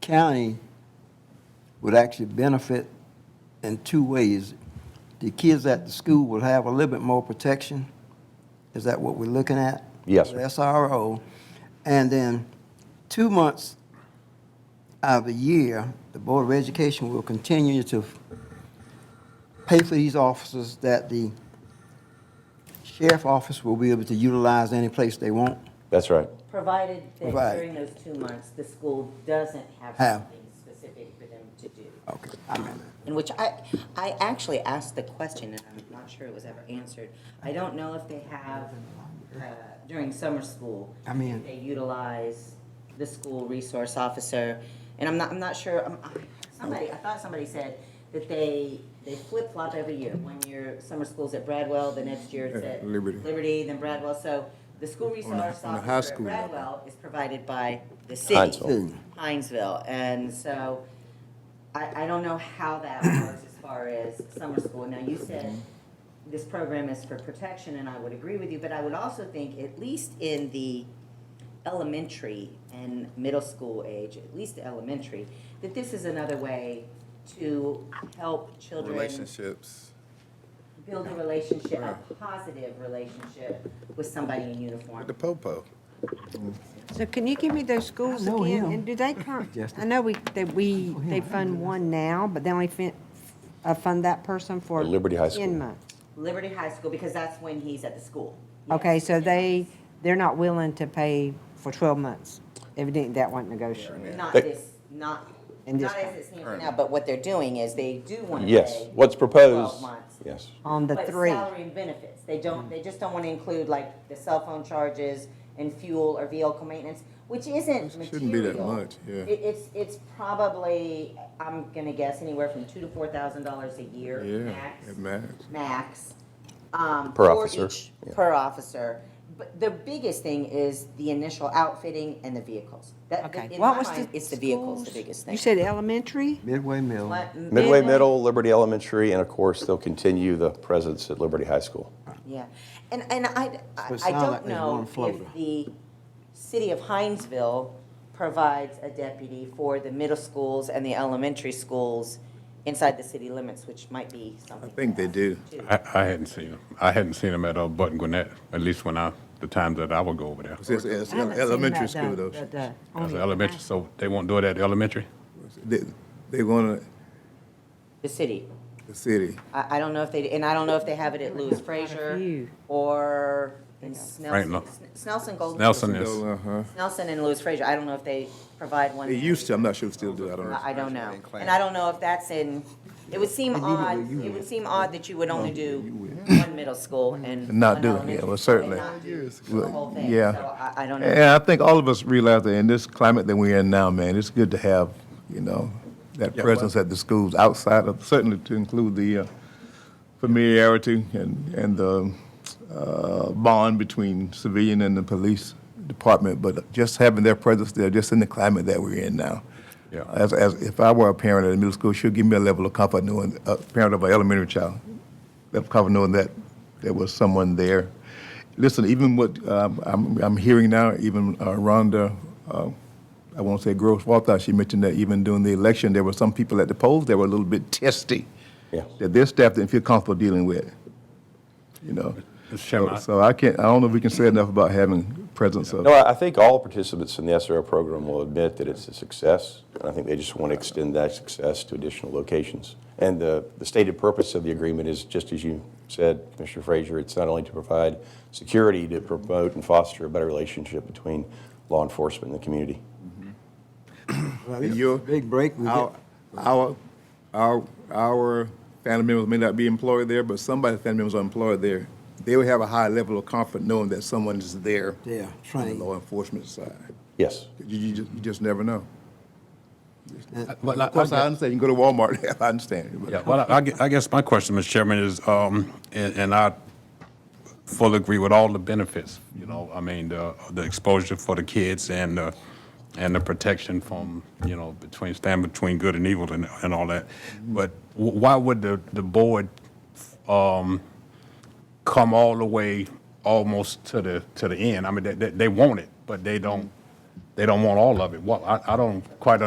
county would actually benefit in two ways. The kids at the school will have a little bit more protection. Is that what we're looking at? Yes, sir. The SRO. And then two months out of the year, the Board of Education will continue to pay for these officers that the sheriff office will be able to utilize any place they want. That's right. Provided that Right. during those two months, the school doesn't have Have. something specific for them to do. Okay, I remember. In which I, I actually asked the question, and I'm not sure it was ever answered. I don't know if they have, uh, during summer school. I mean- They utilize the school resource officer, and I'm not, I'm not sure, um, somebody, I thought somebody said that they, they flip-flop every year. One year, summer school's at Bradwell, the next year it's Yeah, at. Liberty. Liberty, then Bradwell, so the school resource on the high officer at school level. Bradwell is provided by the city. Hinesville. Hinesville, and so I, I don't know how that works as far as summer school. Now, you said this program is for protection, and I would agree with you, but I would also think, at least in the elementary and middle school age, at least elementary, that this is another way to help children relationships. build a relationship, a positive relationship with somebody in uniform. The popo. So can you give me those schools I know again? him. And do they come, Justin. I know we, that we, him. they fund one now, but they only fin, uh, fund that person for. The Liberty High School. Ten months. Liberty High School, because that's when he's at the school. Okay, so Yes. they, they're not willing to pay for twelve months. Evidently, that wasn't negotiable. Not They- this, not, In this not as one. it stands right now, but what they're doing is they do want to pay. Yes, what's 12 proposed, months. yes. On the But three. salary and benefits, they don't, they just don't want to include like the cell phone charges and fuel or vehicle maintenance, which isn't material. Shouldn't be that much, yeah. It, it's, it's probably, I'm gonna guess anywhere from two to four thousand dollars a year Yeah, max it matters. max. um, Per for officer, each- yeah. Per officer. But the biggest thing is the initial outfitting and the vehicles. That, that- Okay. in What my was mind, it's the vehicles, the schools? biggest thing. You said elementary? Midway Mill. What- Midway Middle, Liberty Elementary, and of course, they'll continue the presence at Liberty High School. Yeah, and, and I, I So it I sound like don't there's one know in Florida. if the city of Hinesville provides a deputy for the middle schools and the elementary schools inside the city limits, which might be something. I think they do. I, I hadn't seen them. I hadn't seen them at uh, Button Gwinnett, at least when I, the times that I would go over there. It's- it's- it's elementary school though. As an Oh, elementary, so they won't do it at the elementary? They, they want The city. the city. I, I don't know if they, and I don't know if they have it at Lewis Frazier few. or in Right, Snelson, no. Snelson Golden. Nelson is, Uh-huh. Snelson and Lewis Frazier. I don't know if they provide one. They used to, I'm not sure if they still do, I don't know. I I don't know. And I don't know if that's in, it would seem odd, it would seem odd that you would only do one middle school and. And not one do it, yeah, elementary school well, and certainly. not do The Well, whole thing, yeah. so I, I don't And know. I think all of us realize that in this climate that we're in now, man, it's good to have, you know, that presence at the schools outside of, certainly to include the uh, familiarity and, and the uh, bond between civilian and the police department, but just having their presence there, just in the climate that we're in now. Yeah. As, as, if I were a parent at a middle school, she'd give me a level of comfort knowing, a parent of an elementary child, level of comfort knowing that there was someone there. Listen, even what um, I'm, I'm hearing now, even uh, Rhonda, uh, I won't say gross Walthouse, she mentioned that even during the election, there were some people at the polls that were a little bit testy, Yeah. that their staff didn't feel comfortable dealing with, you know. Mr. Chairman, So- So I- I can't, I don't know if we can say enough about having presence of. No, I I think all participants in the SRO program will admit that it's a success, and I think they just want to extend that success to additional locations. And the, the stated purpose of the agreement is, just as you said, Commissioner Frazier, it's not only to provide security, to promote and foster a better relationship between law enforcement and the community. Well, it's a you're- Big break. we Our, get- our, our, our family members may not be employed there, but somebody's family members are employed there. They would have a high level of comfort knowing that someone is there. Yeah, On the trained. law enforcement side. Yes. You, you, just- you just never know. well, I- Of course, I I understand, you can go to Walmart, I understand. but- Yeah, well, I- I, gue- I guess my question, Mr. Chairman, is, um, and, and I fully agree with all the benefits, you know, I mean, the, the exposure for the kids and, uh, and the protection from, you know, between, stand between good and evil and, and all that. But wh- why would the, the board, um, come all the way almost to the, to the end? I mean, they, they, they want it, but they don't, they don't want all of it. Well, I, I don't quite